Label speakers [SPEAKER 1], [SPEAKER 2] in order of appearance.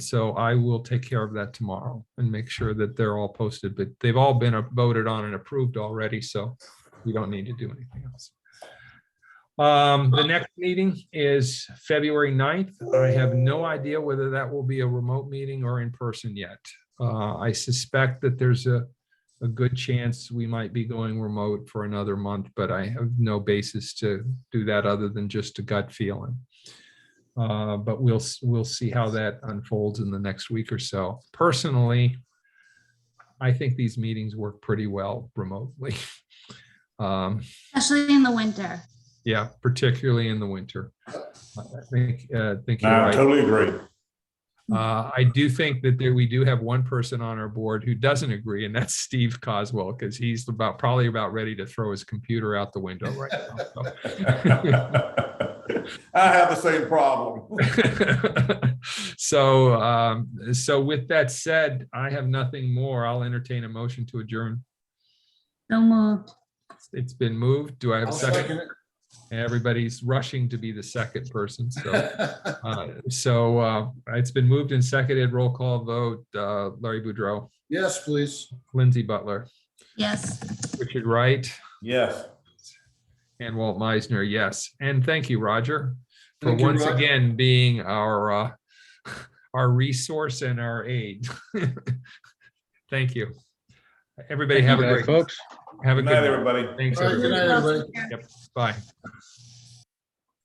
[SPEAKER 1] So I will take care of that tomorrow and make sure that they're all posted, but they've all been uh, voted on and approved already, so we don't need to do anything else. Um, the next meeting is February 9th. I have no idea whether that will be a remote meeting or in person yet. Uh, I suspect that there's a, a good chance we might be going remote for another month, but I have no basis to do that other than just a gut feeling. Uh, but we'll, s- we'll see how that unfolds in the next week or so. Personally, I think these meetings work pretty well remotely. Um,
[SPEAKER 2] Especially in the winter.
[SPEAKER 1] yeah, particularly in the winter. I think, uh, I think you're
[SPEAKER 3] No, I
[SPEAKER 1] right.
[SPEAKER 3] totally agree.
[SPEAKER 1] Uh, I do think that there, we do have one person on our board who doesn't agree, and that's Steve Coswell, because he's about, probably about ready to throw his computer out the window right now. so.
[SPEAKER 3] I have the same problem.
[SPEAKER 1] So, um, so with that said, I have nothing more. I'll entertain a motion to adjourn.
[SPEAKER 2] So moved.
[SPEAKER 1] It's been moved. Do I have a
[SPEAKER 4] I'll
[SPEAKER 1] second?
[SPEAKER 4] second it.
[SPEAKER 1] Everybody's rushing to be the second person, so. uh, So, uh, it's been moved and seconded. Roll call vote, uh, Larry Boudreau,
[SPEAKER 4] Yes, please.
[SPEAKER 1] Lindsay Butler,
[SPEAKER 2] Yes.
[SPEAKER 1] Richard Wright,
[SPEAKER 3] Yes.
[SPEAKER 1] And Walt Meisner, yes. And thank you, Roger, for
[SPEAKER 4] Thank you,
[SPEAKER 1] once
[SPEAKER 4] Roger.
[SPEAKER 1] again being our, uh, our resource and our aid. Thank you. Everybody have a
[SPEAKER 5] Good night,
[SPEAKER 1] great,
[SPEAKER 5] Folks.
[SPEAKER 1] have a
[SPEAKER 3] Good
[SPEAKER 1] good
[SPEAKER 3] night,
[SPEAKER 1] night.
[SPEAKER 3] everybody.
[SPEAKER 1] Thanks,
[SPEAKER 4] All right, good night,
[SPEAKER 1] everybody.
[SPEAKER 4] everybody.
[SPEAKER 1] Bye.